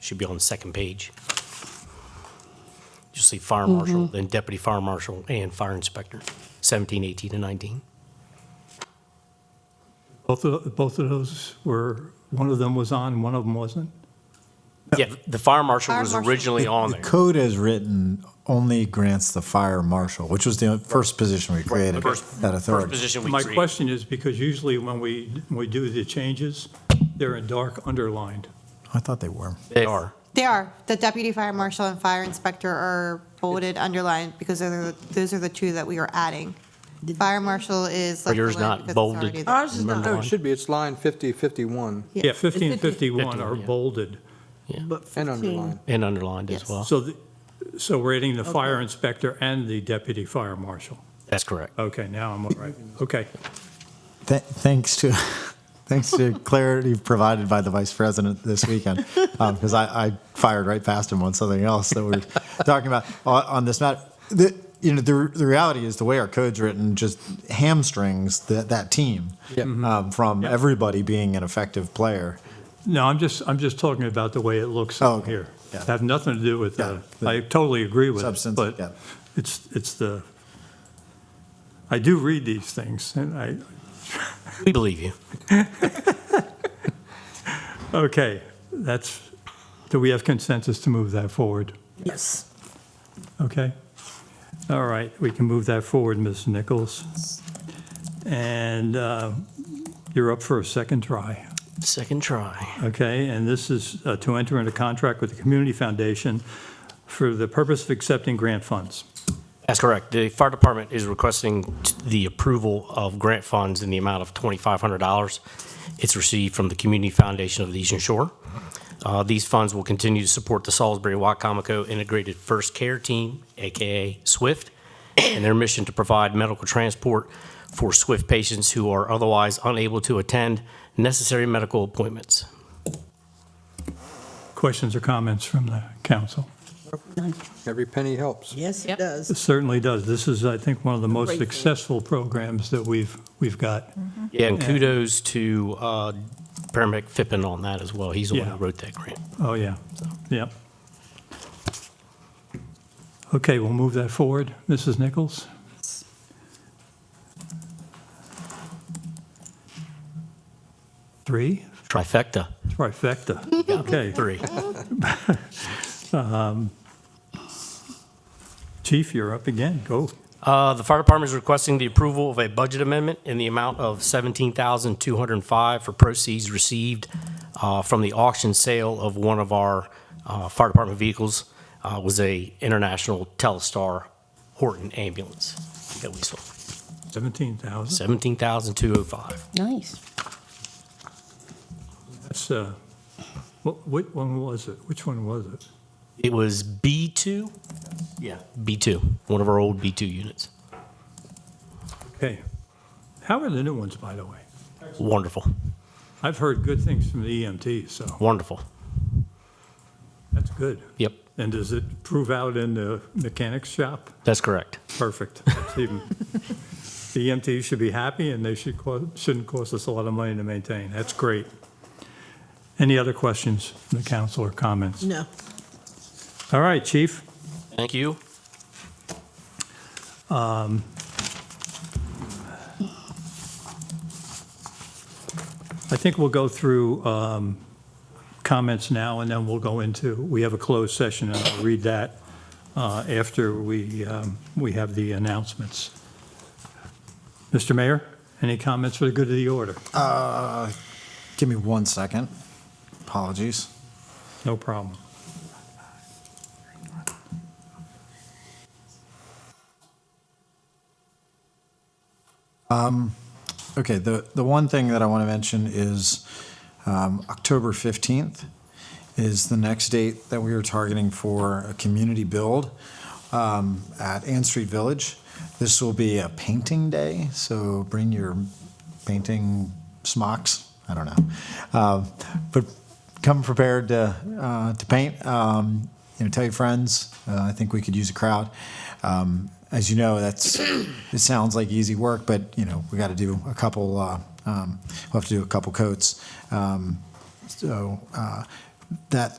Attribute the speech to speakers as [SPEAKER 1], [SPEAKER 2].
[SPEAKER 1] Should be on the second page. You'll see fire
[SPEAKER 2] Mm-hmm.
[SPEAKER 1] marshal, then deputy fire marshal and fire inspector, 17, 18, and 19.
[SPEAKER 3] Both of, both of those were, one of them was on, one of them wasn't?
[SPEAKER 1] Yeah, the fire marshal
[SPEAKER 2] Fire
[SPEAKER 1] was
[SPEAKER 2] marshal.
[SPEAKER 1] originally on
[SPEAKER 4] The
[SPEAKER 1] there.
[SPEAKER 4] code as written only grants the fire marshal, which was the first position we created,
[SPEAKER 1] First-
[SPEAKER 4] that
[SPEAKER 1] First
[SPEAKER 4] authority.
[SPEAKER 1] position we
[SPEAKER 3] My
[SPEAKER 1] created.
[SPEAKER 3] question is, because usually when we, we do the changes, they're in dark underlined.
[SPEAKER 4] I thought they were.
[SPEAKER 1] They are.
[SPEAKER 2] They are. The deputy fire marshal and fire inspector are bolded, underlined, because they're, the- those are the two that we are adding. Fire marshal is.
[SPEAKER 1] Are yours
[SPEAKER 2] left alone
[SPEAKER 1] not
[SPEAKER 2] because it's
[SPEAKER 1] bolded?
[SPEAKER 2] already there.
[SPEAKER 5] Ours is not,
[SPEAKER 1] Remember
[SPEAKER 5] oh,
[SPEAKER 1] one.
[SPEAKER 5] it should be, it's line 50, 51,
[SPEAKER 3] Yeah, 50 and 51 are
[SPEAKER 1] 51, yeah.
[SPEAKER 3] bolded.
[SPEAKER 5] but 15.
[SPEAKER 1] And underlined as
[SPEAKER 2] Yes.
[SPEAKER 1] well.
[SPEAKER 3] So, the- so we're adding the fire inspector and the deputy fire marshal.
[SPEAKER 1] That's correct.
[SPEAKER 3] Okay, now I'm all right. Okay.
[SPEAKER 4] Th- Thanks to, thanks to clarity provided by the vice president this weekend, because I, I fired right past him on something else that we we're talking about on, on this matter. The, you know, the, the reality is the way our code's written just hamstrings that, that team um, from everybody being an effective player.
[SPEAKER 3] No, I'm just, I'm just talking about the way it looks
[SPEAKER 4] Oh,
[SPEAKER 3] out
[SPEAKER 4] okay.
[SPEAKER 3] here.
[SPEAKER 4] Yeah.
[SPEAKER 3] Have nothing to do with the,
[SPEAKER 4] Yeah, the
[SPEAKER 3] I totally agree with it,
[SPEAKER 4] substance, yeah.
[SPEAKER 3] but it's, it's the, I do read these things, and I,
[SPEAKER 1] We believe you.
[SPEAKER 3] okay, that's, do we have consensus to move that forward?
[SPEAKER 4] Yes.
[SPEAKER 3] Okay. All right, we can move that forward, Ms. Nichols. And uh, you're up for a second try.
[SPEAKER 1] Second try.
[SPEAKER 3] Okay, and this is uh, to enter into contract with the Community Foundation for the purpose of accepting grant funds.
[SPEAKER 1] That's correct. The fire department is requesting t- the approval of grant funds in the amount of $2,500. It's received from the Community Foundation of the Eastern Shore. Uh, These funds will continue to support the Salisbury Wycomico Integrated First Care Team, AKA SWIFT, and their mission to provide medical transport for SWIFT patients who are otherwise unable to attend necessary medical appointments.
[SPEAKER 3] Questions or comments from the council?
[SPEAKER 5] Every penny helps.
[SPEAKER 6] Yes, it
[SPEAKER 3] It
[SPEAKER 6] does.
[SPEAKER 3] certainly does. This is, I think, one of the most
[SPEAKER 6] Great thing. Mm-hmm.
[SPEAKER 3] successful programs that we've, we've got.
[SPEAKER 1] Yeah, and kudos to uh, paramedic Fippen on that as well. He's the one who
[SPEAKER 3] Yeah.
[SPEAKER 1] wrote that grant.
[SPEAKER 3] Oh, yeah, yep. Okay, we'll move that forward. Mrs. Nichols? Three,
[SPEAKER 1] Trifecta,
[SPEAKER 3] trifecta. Okay,
[SPEAKER 1] three.
[SPEAKER 3] Chief, you're up again, go.
[SPEAKER 1] Uh, The fire department is requesting the approval of a budget amendment in the amount of $17,205 for proceeds received uh, from the auction sale of one of our uh, fire department vehicles. Uh, It was a International Telstar Horton ambulance that we sold.
[SPEAKER 3] 17,000.
[SPEAKER 1] 17205
[SPEAKER 6] Nice.
[SPEAKER 3] That's, uh, what, what one was it? Which one was it?
[SPEAKER 1] It was B2? Yeah, B2, one of our old B2 units.
[SPEAKER 3] Okay. How are the new ones, by the way?
[SPEAKER 1] Wonderful,
[SPEAKER 3] I've heard good things from the EMT, so
[SPEAKER 1] wonderful.
[SPEAKER 3] that's good.
[SPEAKER 1] Yep,
[SPEAKER 3] And does it prove out in the mechanic's shop?
[SPEAKER 1] that's correct.
[SPEAKER 3] Perfect. That's even- The EMTs should be happy, and they should, co- shouldn't cost us a lot of money to maintain. That's great. Any other questions from the council or comments?
[SPEAKER 6] No.
[SPEAKER 3] All right, chief.
[SPEAKER 1] Thank you.
[SPEAKER 3] I think we'll go through um, comments now, and then we'll go into, we have a closed session, and I'll read that uh, after we, um, we have the announcements. Mr. Mayor, any comments for the good of the order?
[SPEAKER 4] Give me one second. Apologies.
[SPEAKER 3] No problem.
[SPEAKER 4] Okay, the, the one thing that I want to mention is um, October 15th is the next date that we are targeting for a community build um, at Ann Street Village. This will be a painting day, so bring your painting smocks, I don't know. Uh, But come prepared to, uh, to paint, Um, you know, tell your friends, uh, I think we could use a crowd. Um, as you know, that's it sounds like easy work, but you know we got to do a couple. Uh, um, we'll have to do a couple coats. Um, so uh, that